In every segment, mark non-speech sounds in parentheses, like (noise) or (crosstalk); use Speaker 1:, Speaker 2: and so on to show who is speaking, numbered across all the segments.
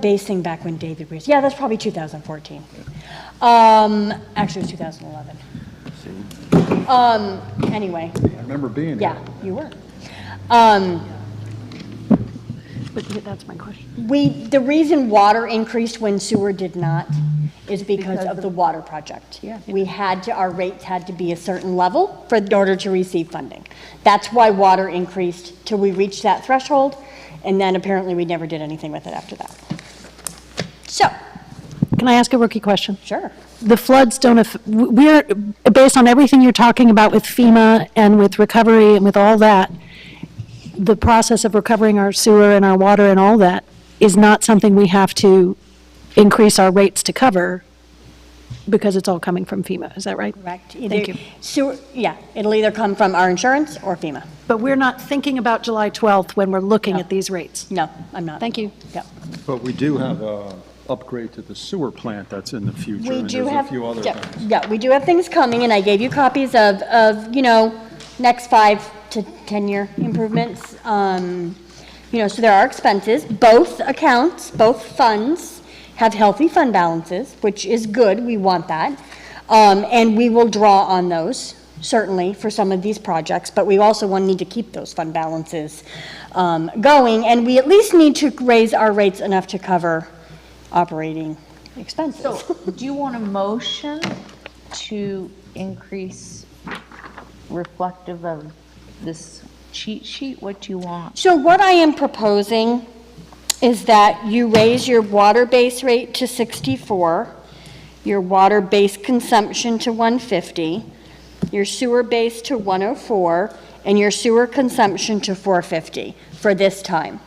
Speaker 1: basing back when David was, yeah, that's probably 2014. Um, actually, it was 2011. Um, anyway,
Speaker 2: I remember being
Speaker 1: yeah,
Speaker 2: here.
Speaker 1: you were. Um,
Speaker 3: But th- that's my question.
Speaker 1: we, the reason water increased when sewer did not is because of the water project.
Speaker 3: Yeah.
Speaker 1: We had to, our rates had to be a certain level for, in order to receive funding. That's why water increased till we reached that threshold, and then apparently we never did anything with it after that. So,
Speaker 3: Can I ask a rookie question?
Speaker 1: sure.
Speaker 3: The floods don't, aff- w- we're, based on everything you're talking about with FEMA and with recovery and with all that, the process of recovering our sewer and our water and all that is not something we have to increase our rates to cover because it's all coming from FEMA, is that right?
Speaker 1: Correct.
Speaker 3: Thank
Speaker 1: Either
Speaker 3: you.
Speaker 1: sewer, yeah, it'll either come from our insurance or FEMA.
Speaker 3: But we're not thinking about July 12th when we're looking at these rates.
Speaker 1: No, I'm not.
Speaker 3: Thank you.
Speaker 1: Yep.
Speaker 2: But we do have a upgrade to the sewer plant that's in the future.
Speaker 1: We
Speaker 2: and
Speaker 1: do
Speaker 2: There's
Speaker 1: have.
Speaker 2: a few other
Speaker 1: yeah,
Speaker 2: things.
Speaker 1: Yeah, we do have things coming, and I gave you copies of, of, you know, next five to 10-year improvements. Um, You know, so there are expenses. Both accounts, both funds have healthy fund balances, which is good, we want that. Um, And we will draw on those, certainly, for some of these projects, but we also want, need to keep those fund balances um, going, and we at least need to raise our rates enough to cover operating expenses.
Speaker 4: So, do you want a motion to increase reflective of this cheat sheet? What do you want?
Speaker 1: So what I am proposing is that you raise your water base rate to 64, your water base consumption to 150, your sewer base to 104, and your sewer consumption to 450 for this time.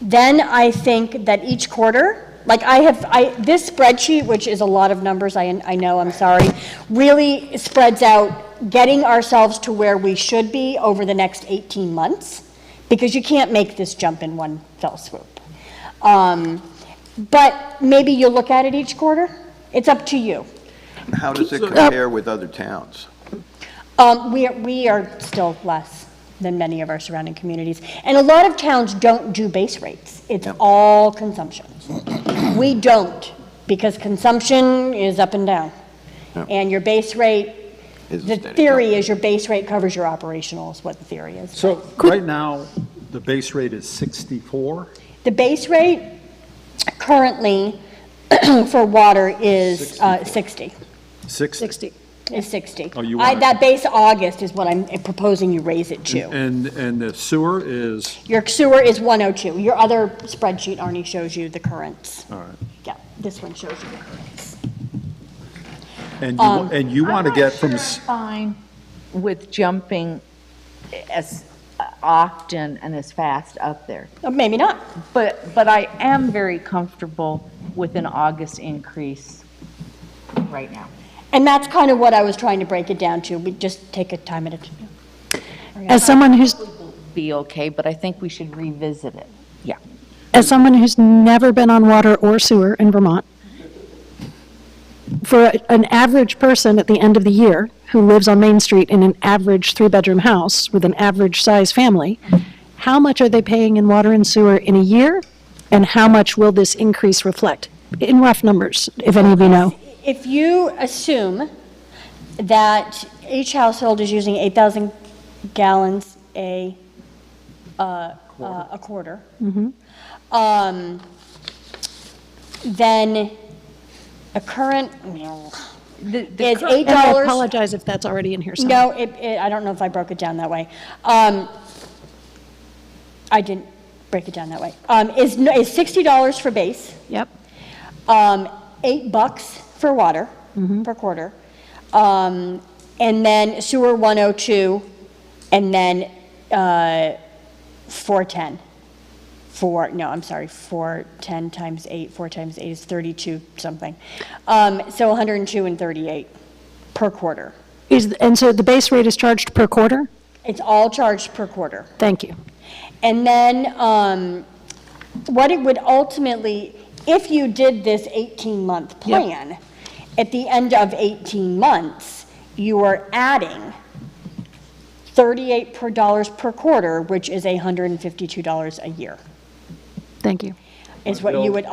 Speaker 1: Then I think that each quarter, like I have, I, this spreadsheet, which is a lot of numbers, I, I know, I'm sorry, really spreads out getting ourselves to where we should be over the next 18 months, because you can't make this jump in one fell swoop. Um, But maybe you'll look at it each quarter. It's up to you.
Speaker 5: How does it compare with other towns?
Speaker 1: Um, we, are- we are still less than many of our surrounding communities. And a lot of towns don't do base rates. It's
Speaker 5: Yep.
Speaker 1: all consumption. We don't, because consumption is up and down.
Speaker 5: Yep.
Speaker 1: And your base rate,
Speaker 5: Is
Speaker 1: the
Speaker 5: steady,
Speaker 1: theory
Speaker 5: yeah.
Speaker 1: is your base rate covers your operational is what the theory is.
Speaker 2: So right now, the base rate is 64?
Speaker 1: The base rate currently (clears throat) for water is uh, 60,
Speaker 2: 60?
Speaker 3: 60.
Speaker 1: is 60.
Speaker 2: Oh, you
Speaker 1: I-
Speaker 2: want it-
Speaker 1: That base August is what I'm proposing you raise it to.
Speaker 2: And, and the sewer is,
Speaker 1: Your sewer is 102. Your other spreadsheet, Arnie, shows you the currents.
Speaker 2: all right.
Speaker 1: Yeah, this one shows you the currents.
Speaker 2: And you,
Speaker 1: Um,
Speaker 2: and you want to get from, s-
Speaker 4: Fine with jumping as often and as fast up there.
Speaker 1: Uh, Maybe not.
Speaker 4: But, but I am very comfortable with an August increase right now.
Speaker 1: And that's kind of what I was trying to break it down to. We just take a time at a time.
Speaker 3: As someone who's
Speaker 4: Be okay, but I think we should revisit it. Yeah.
Speaker 3: as someone who's never been on water or sewer in Vermont, for a- an average person at the end of the year who lives on Main Street in an average three-bedroom house with an average-sized family, how much are they paying in water and sewer in a year? And how much will this increase reflect? In rough numbers, if any of you know.
Speaker 1: If you assume that each household is using 8,000 gallons a, uh, uh, a quarter, um, then a current
Speaker 4: The- the
Speaker 1: is
Speaker 4: cur-
Speaker 1: $8.
Speaker 3: And I apologize if that's already in here somewhere.
Speaker 1: No, it, it, I don't know if I broke it down that way. Um, I didn't break it down that way. Um, is, no- is sixty dollars for base,
Speaker 3: Yep.
Speaker 1: um, eight bucks for water per quarter. Um, and then sewer one oh two, and then, uh, four ten. Four, no, I'm sorry, four ten times eight, four times eight is thirty-two something. Um, so hundred and two and thirty-eight per quarter.
Speaker 3: Is, and so the base rate is charged per quarter?
Speaker 1: It's all charged per quarter.
Speaker 3: Thank you.
Speaker 1: And then, um, what it would ultimately, if you did this 18-month plan, at the end of 18 months, you are adding 38 per dollars per quarter, which is $152 a year.
Speaker 3: Thank you.
Speaker 1: is what you would